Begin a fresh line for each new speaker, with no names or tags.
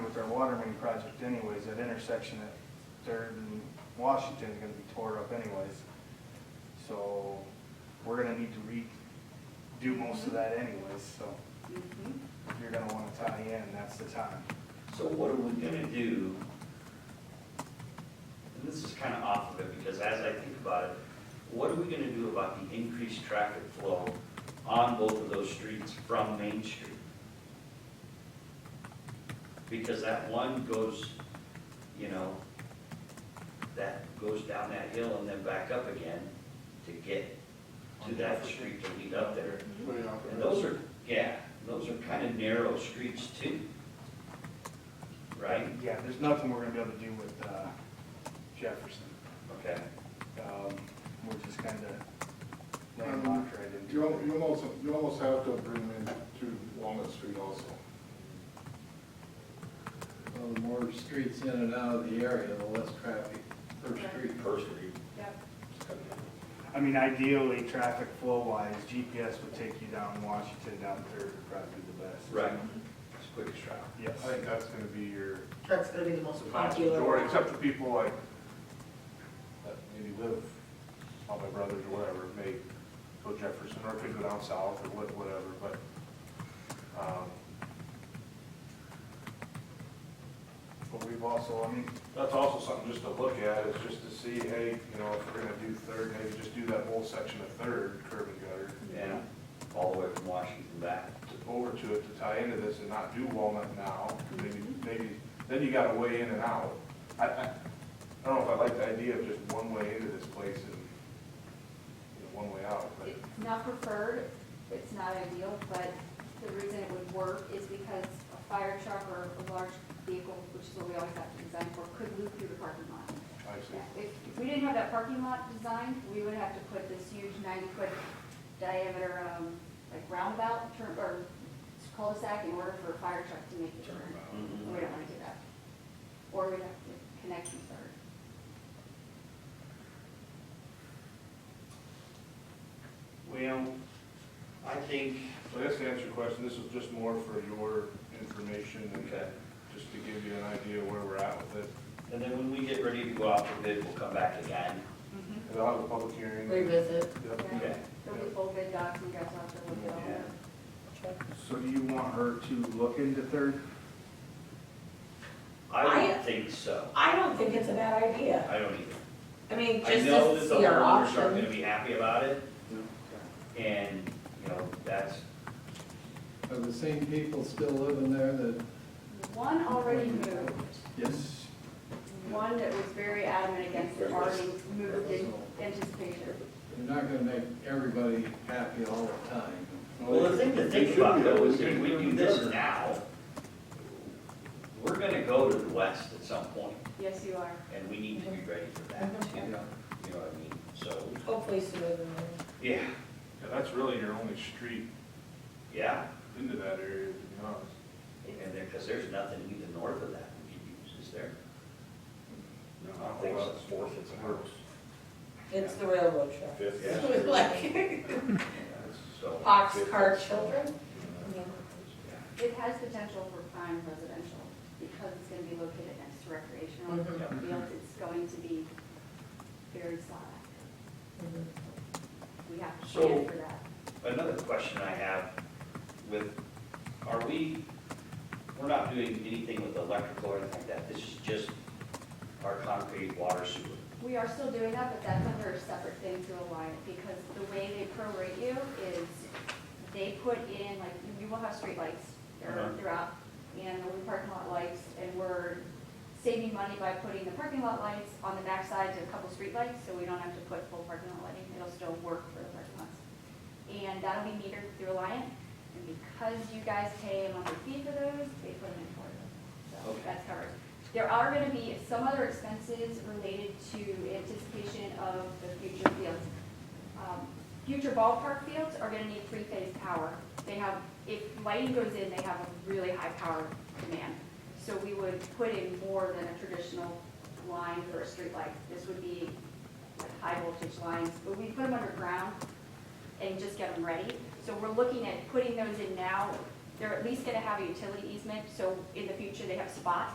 water main project anyways, that intersection at Third and Washington is gonna be tore up anyways. So, we're gonna need to redo most of that anyways, so
Mm-hmm,
if you're gonna wanna tie in, that's the time.
So what are we gonna do? And this is kind of off of it, because as I think about it, what are we gonna do about the increased traffic flow on both of those streets from Main Street? Because that one goes, you know, that goes down that hill and then back up again to get to that street to lead up there.
Way out
And
there.
those are, yeah, those are kind of narrow streets too. Right?
Yeah, there's nothing we're gonna be able to do with, uh, Jefferson,
Okay.
um, we're just kinda landlocked right into.
You, al-
it.
you almost, you almost have to bring them in to Walnut Street also.
Well, the more streets in and out of the area, the less traffic per street.
Per street.
Yep.
I mean, ideally, traffic flow wise, GPS would take you down Washington, down Third would probably be the best.
Right. It's quickest route.
Yes.
I think that's gonna be your
That's gonna be the most
vast
popular.
majority,
one.
except for people like, that maybe live, all my brothers or whatever, may go Jefferson, or could go down south, or what, whatever, but, um,
But we've also, I mean,
that's also something just to look at, is just to see, hey, you know, if we're gonna do Third, maybe just do that whole section of Third, curb and gutter.
Yeah, all the way from Washington back.
to- over to it to tie into this and not do Walnut now, maybe, maybe, then you gotta weigh in and out. I, I, I don't know if I like the idea of just one way into this place and, you know, one way out, but
It's not preferred, it's not ideal, but the reason it would work is because a fire truck or a large vehicle, which is what we always have to design for, could loop through the parking lot.
I see.
If if we didn't have that parking lot designed, we would have to put this huge ninety-foot diameter, um, like roundabout, turn, or cul-de-sac in order for a fire truck to make the turn.
Mm-hmm.
And We don't wanna do that. Or we'd have to connect from third.
Well, I think.
So I guess to answer your question, this is just more for your information and
Okay.
just to give you an idea of where we're at with it.
And then when we get ready to go out for bid, we'll come back again.
And I'll have a public hearing.
Revisit.
Yep.
Okay.
There'll be full bid docs, and you guys will have to look it over.
Yeah.
so do you want her to look into Third?
I
I-
don't think so.
I don't think it's a bad idea.
I don't either.
I mean,
I
just
know
to
that the
see our
homeowners aren't
options.
gonna be happy about it. And, you know, that's,
Are the same people still living there that?
One already moved.
Yes.
One that was very adamant against it already moved in anticipation.
You're not gonna make everybody happy all the time.
well, the thing to think about though is if we do this now, we're gonna go to the west at some point.
Yes, you are.
And we need to be ready for that, too. you know what I mean? So,
Hopefully sooner than later.
yeah,
Yeah, that's really your only street
yeah,
into that area, to be honest.
and there, because there's nothing either north of that we can use, is there? No, I don't think so.
Fourth, it's a house.
It's the railroad track.
Fifth.
Yeah.
Like
So,
ox cart children.
yeah,
It has potential for prime residential because it's going to be located next to recreational
Mhm.
yeah.
fields. It's going to be very sought after.
Mhm.
We have to
Mm-hmm. So-
plan for that.
Another question I have with, are we, we're not doing anything with electrical or anything like that, this is just our concrete water sewer.
We are still doing that, but that's under a separate thing to Alliant, because the way they prorate you is they put in, like, you will have streetlights
Uh-huh.
throughout- throughout, and there'll be parking lot lights, and we're saving money by putting the parking lot lights on the backside to a couple streetlights, so we don't have to put full parking lot lighting, it'll still work for the parking lots. And that'll be metered through Alliant, and because you guys pay a monthly fee for those, they put them in for you. So
Okay.
that's covered. There are gonna be some other expenses related to anticipation of the future fields. Um, Future ballpark fields are gonna need three-phase power. They have, if lighting goes in, they have a really high power demand. So we would put in more than a traditional line for a streetlight. This would be like high voltage lines, but we put them underground and just get them ready. So we're looking at putting those in now. They're at least gonna have a utility easement, so in the future, they have spots